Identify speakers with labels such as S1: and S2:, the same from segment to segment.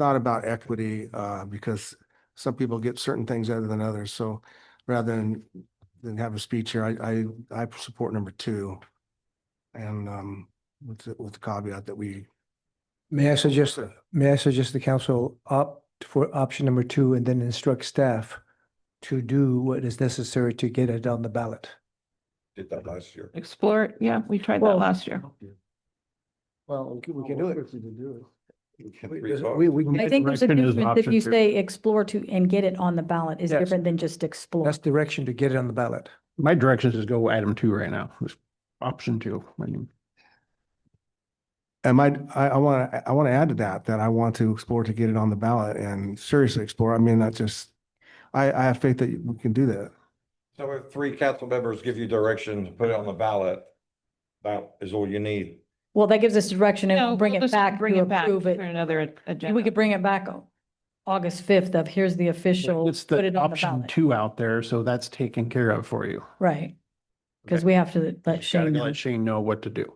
S1: thought about equity, uh, because some people get certain things other than others. So rather than, than have a speech here, I, I, I support number two. And, um, with, the- with the caveat that we,
S2: May I suggest, may I suggest the council opt for option number two and then instruct staff to do what is necessary to get it on the ballot?
S3: Did that last year.
S4: Explore, it. yeah, we tried that
S2: Well-
S4: last year.
S2: Well, we can- we can do it.
S3: We had three votes.
S2: We, we,
S5: I
S2: can-
S5: think there's a
S6: direction is
S5: difference if
S6: option
S5: you
S6: two.
S5: say explore to and get it on the ballot is
S2: Yes.
S5: different than just explore.
S2: that's direction to get it on the ballot.
S6: My directions is go item two right now, Just option two. I mean,
S1: and my, I, I want to, I want to add to that, that I want to explore to get it on the ballot and seriously explore. I mean, that's just, I, I have faith that we can do that.
S3: So if three council members give you direction to put it on the ballot, that is all you need.
S5: Well, that gives us direction
S4: No,
S5: and bring
S4: we'll
S5: it
S4: just
S5: back
S4: Bring
S5: to
S4: it back
S5: approve
S4: for
S5: it.
S4: another agenda.
S5: We could bring it back on August 5th of here's the official,
S6: It's
S5: put it
S6: the
S5: on the
S6: option
S5: ballot.
S6: two out there, so that's taken care of for you.
S5: Right. Because
S6: Okay.
S5: we have to let
S6: Gotta
S5: Shane know.
S6: Let Shane know what to do.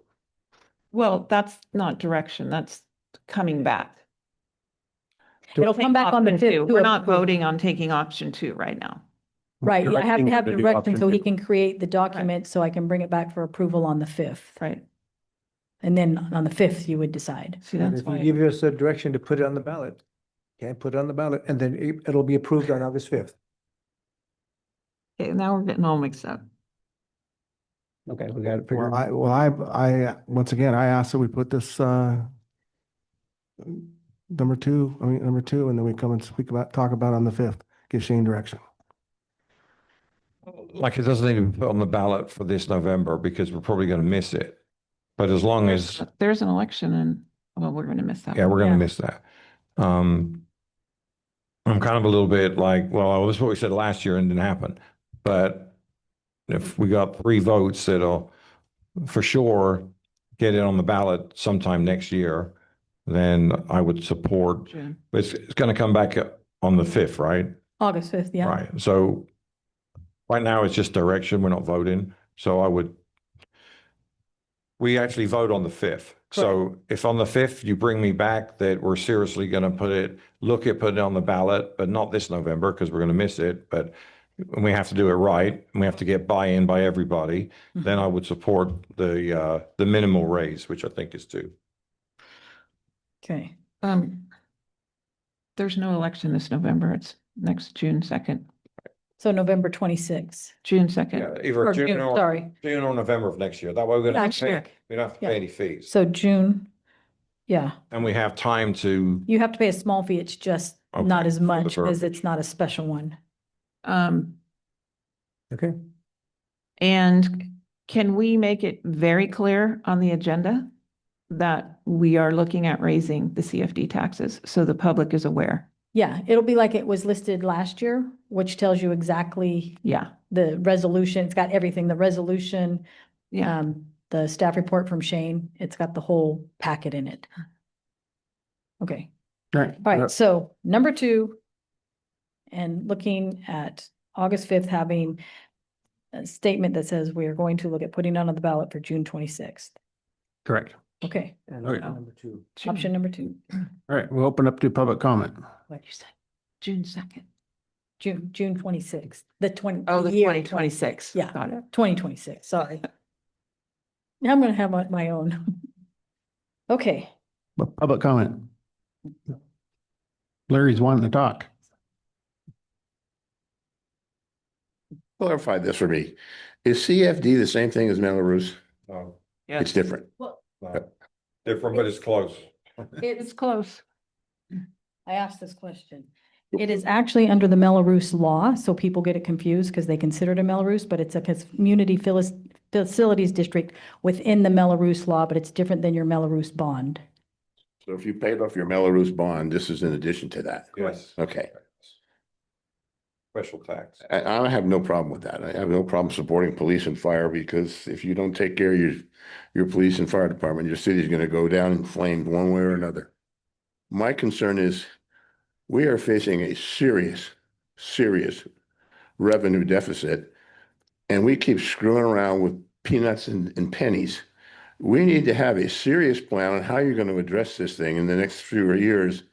S4: Well, that's not direction, that's coming back.
S5: It'll come back on the
S4: Option
S5: 5th.
S4: two.
S5: to
S4: We're not
S5: approve.
S4: voting on taking option two right now.
S5: Right, yeah, I have
S6: Directing
S5: to
S6: him
S5: have
S6: to do
S5: direction
S6: option
S5: so he
S6: two.
S5: can create the document so I can bring it back for approval on the 5th.
S4: Right.
S5: And then on the 5th, you would decide.
S4: See,
S2: And
S4: that's
S2: if you
S4: why,
S2: give us a direction to put it on the ballot, can put it on the ballot, and then it- it'll be approved on August fifth.
S4: Okay, now we're getting all mixed up.
S6: Okay, we got it figured.
S1: Well, I, well, I, I, once again, I ask that we put this, uh, number two, I mean, number two, and then we come and speak about, talk about on the fifth, give Shane direction.
S3: Like it doesn't even put on the ballot for this November because we're probably going to miss it. But as long as,
S4: There's an election and, well, we're going to miss that.
S3: yeah, we're going
S5: Yeah.
S3: to miss that. Um, I'm kind of a little bit like, well, this is what we said last year and didn't happen. But if we got three votes, it'll for sure get it on the ballot sometime next year, then I would support
S4: June.
S3: But It's, it's going to come back on the fifth, right?
S5: August 5th, yeah.
S3: Right. So right now it's just direction. We're not voting. So I would, we actually vote on the fifth. So if on the fifth you bring me back that we're seriously going to put it, look at putting it on the ballot, but not this November because we're going to miss it, but we have to do it right and we have to get buy-in by everybody,
S5: Mm-hmm.
S3: then I would support the, uh, the minimal raise, which I think is two.
S5: Okay.
S4: Um, there's no election this November. It's next June second,
S5: So November 26th.
S4: June second.
S3: Yeah, Either
S5: Or
S3: June
S5: June,
S3: or,
S5: sorry.
S3: June or November of next year. That way we don't have
S5: Next
S3: to pay,
S5: year.
S3: we don't have to
S5: Yeah.
S3: pay any fees.
S5: So June, yeah,
S3: And we have time to,
S5: you have to pay a small fee. It's just not
S3: Okay,
S5: as
S3: for the
S5: much as
S3: verbiage.
S5: it's not a special one.
S4: Um,
S2: Okay,
S4: And can we make it very clear on the agenda that we are looking at raising the CFD taxes so the public is aware?
S5: Yeah, it'll be like it was listed last year, which tells you exactly
S4: Yeah,
S5: the resolution. It's got everything, the resolution,
S4: yeah.
S5: um, the staff report from Shane. It's got the whole packet in it. Okay,
S6: Right.
S5: all right, so number two. And looking at August fifth, having a statement that says we are going to look at putting it on the ballot for June twenty-sixth.
S6: Correct.
S5: Okay,
S2: and
S6: Okay.
S2: number two.
S5: option number two.
S6: All right, we'll open up to public comment.
S4: What you say? June second.
S5: June, June twenty-sixth, the twenty.
S4: Oh, the
S5: year
S4: twenty twenty-six.
S5: Yeah.
S4: Got it.
S5: Twenty twenty-six, sorry. Now I'm gonna have my, my own. Okay,
S6: Bu- Public comment. Larry's wanting to talk.
S7: Clarify this for me. Is CFD the same thing as Melrose?
S3: no,
S7: It's different.
S3: Oh, no, different, but it's close.
S4: It's close.
S5: I asked this question. It is actually under the Melrose law, so people get it confused because they consider it a Melrose, but it's a community filis- facilities district within the Melrose law, but it's different than your Melrose bond.
S7: So if you paid off your Melrose bond, this is in addition to that.
S3: Yes.
S7: Okay.
S3: Special tax.
S7: I, I have no problem with that. I have no problem supporting police and fire because if you don't take care of your, your police and fire department, your city's gonna go down in flames one way or another. My concern is we are facing a serious, serious revenue deficit and we keep screwing around with peanuts and, and pennies. We need to have a serious plan on how you're gonna address this thing in the next few years